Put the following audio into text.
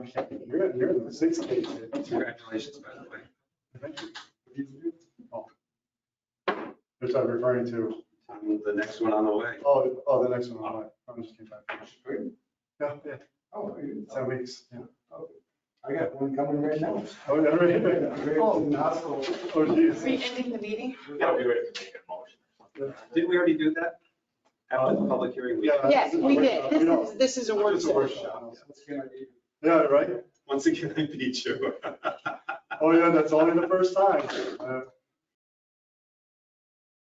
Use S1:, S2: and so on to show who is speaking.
S1: You're, you're in the sixth case.
S2: Congratulations, by the way.
S1: Which I'm referring to,
S2: I'm the next one on the way.
S1: oh, oh, the next one, I'm like, I'm just kidding. Yeah, yeah,
S3: Oh,
S1: ten weeks, yeah.
S3: I got one coming right now.
S1: Oh, yeah, right.
S3: Oh, in the hospital.
S1: Oh,
S4: Are we
S1: geez.
S4: ending the meeting?
S5: Yeah, we would have to make a motion.
S2: Didn't we already do that? After the public hearing, we,
S1: Yeah.
S4: Yes, we did.
S1: We don't-
S4: This is, this is a work
S1: It's a
S4: session.
S1: workshop.
S3: That's a good idea.
S1: Yeah, right?
S2: once again, I beat you.
S1: Oh, yeah, that's only the first time. Uh,